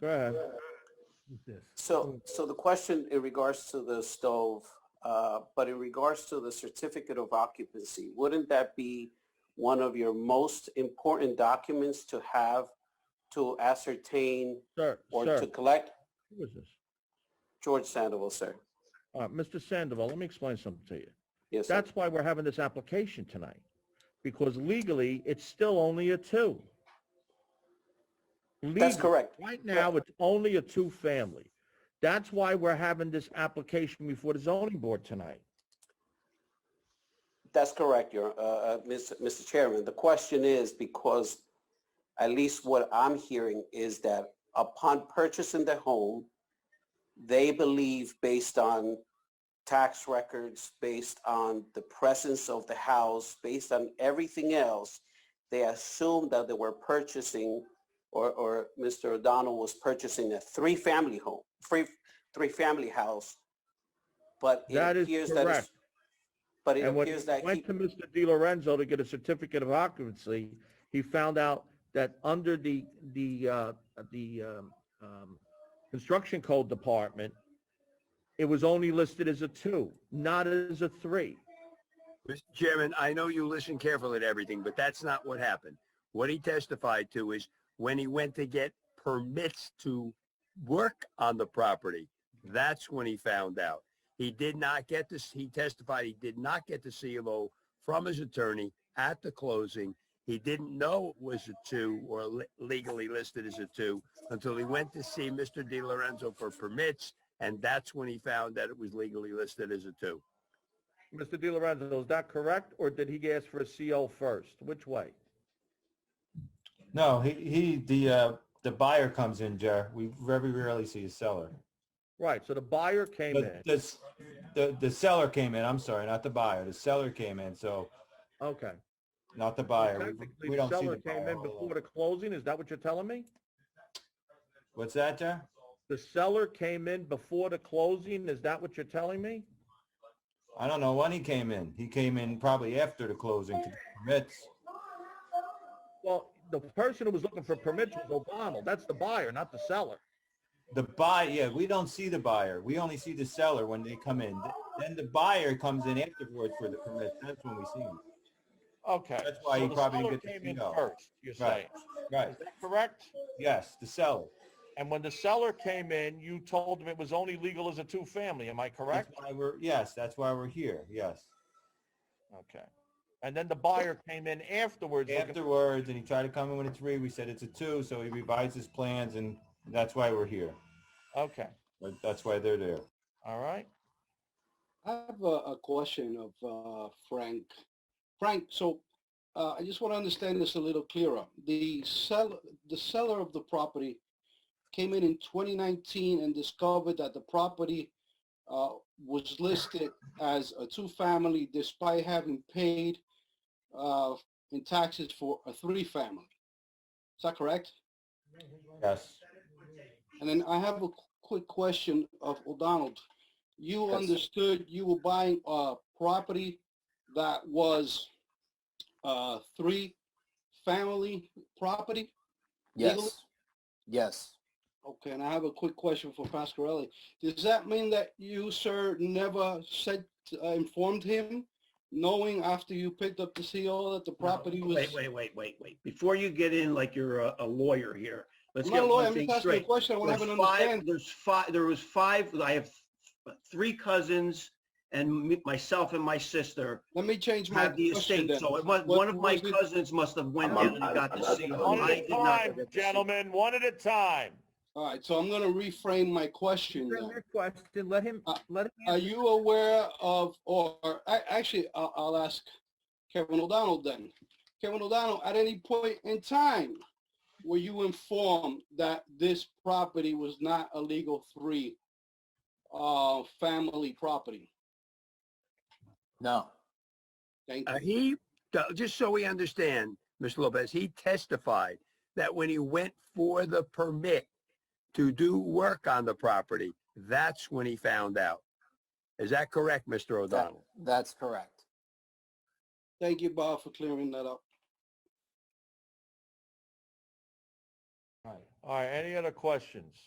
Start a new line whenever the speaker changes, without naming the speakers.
Go ahead.
with this.
Hmm.
So, so the question in regards to the stove, uh, but in regards to the certificate of occupancy, wouldn't that be one of your most important documents to have to ascertain
Sir,
or
sir,
to collect?
who is this?
George Sandoval, sir.
Uh, Mr. Sandoval, let me explain something to you.
Yes, sir.
That's why we're having this application tonight, because legally, it's still only a two.
That's
Legally,
correct.
Right now, it's only a two-family. That's why we're having this application before the zoning board tonight.
That's correct, your, uh, uh, Mr. Mr. Chairman. The question is because at least what I'm hearing is that upon purchasing the home, they believe based on tax records, based on the presence of the house, based on everything else, they assumed that they were purchasing or, or Mr. O'Donnell was purchasing a three-family home, three, three-family house. But it
That is
appears that it's,
correct.
but it
And when
appears
he
that he
went to Mr. Di Lorenzo to get a certificate of occupancy, he found out that under the, the, uh, the, um, um, construction code department, it was only listed as a two, not as a three.
Mr. Chairman, I know you listen carefully to everything, but that's not what happened. What he testified to is when he went to get permits to work on the property, that's when he found out. He did not get this, he testified he did not get the CLO from his attorney at the closing. He didn't know it was a two or le- legally listed as a two until he went to see Mr. Di Lorenzo for permits, and that's when he found that it was legally listed as a two.
Mr. Di Lorenzo, is that correct, or did he ask for a CO first? Which way?
No, he, he, the, uh, the buyer comes in, Jer. We very rarely see a seller.
Right, so the buyer came
But
in.
this, the, the seller came in, I'm sorry, not the buyer. The seller came in, so
Okay.
not the
So
buyer. We-
technically,
We don't see
seller
the
Came
buyer.
in
all
before
along.
the closing, is that what you're telling me?
What's that, Jer?
The seller came in before the closing, is that what you're telling me?
I don't know when he came in. He came in probably after the closing to get permits.
Well, the person who was looking for permits was O'Donnell. That's the buyer, not the seller.
The buy, yeah, we don't see the buyer. We only see the seller when they come in. Then the buyer comes in afterwards for the permits. That's when we see him.
Okay.
That's why he
the
probably
seller
didn't get the
came in
CO.
first, you're saying.
Right. Right.
Is that correct?
Yes, the seller.
And when the seller came in, you told him it was only legal as a two-family, am I
That's
correct?
why we're, yes, that's why we're here. Yes.
Okay. And then the buyer came in afterwards looking
afterwards and he tried to come in with a three. We said it's a two, so he revised his plans and that's why we're here.
Okay,
But That's why they're there.
all right.
I have a, a question of uh, Frank. Frank, so uh, I just want to understand this a little clearer. The seller, the seller of the property came in in 2019 and discovered that the property uh, was listed as a two-family despite having paid uh, in taxes for a three-family. Is that correct?
Yes.
And then I have a qu- quick question of O'Donnell. You
Yes.
understood you were buying a property that was uh three family property? legally?
Yes. Yes.
Okay, and I have a quick question for Pasquarelli. Does that mean that you, sir, never said, uh, informed him, knowing after you picked up the CO that the
No,
property was?
Wait, wait, wait, wait, wait. Before you get in like you're a, a lawyer here, let's
I'm
get
not a lawyer,
one
I'm
thing
just asking a
straight.
question, I want to have
There's
an
five,
understanding.
there's five, there was five, I have three cousins and me- myself and my sister
Let me change my
had the
question
estate,
then.
so it was,
What
one of my
was it-
cousins must have went
I'm-
in and got
I'm-
the
I'm-
seal.
I'm-
I
I'm-
did
One
not
at a
get the
time,
seal.
gentlemen, one at a time.
All right, so I'm going to reframe my question then.
Your question, let him,
Uh,
let him.
Are
answer.
you aware of, or, a- actually, I'll, I'll ask Kevin O'Donnell then. Kevin O'Donnell, at any point in time, were you informed that this property was not a legal three, uh, family property?
No.
Thank
Uh,
you.
he, uh, just so we understand, Mr. Lopez, he testified that when he went for the permit to do work on the property, that's when he found out. Is that correct, Mr. O'Donnell?
That's correct.
Thank you, Bob, for clearing that up.
All right. All right, any other questions?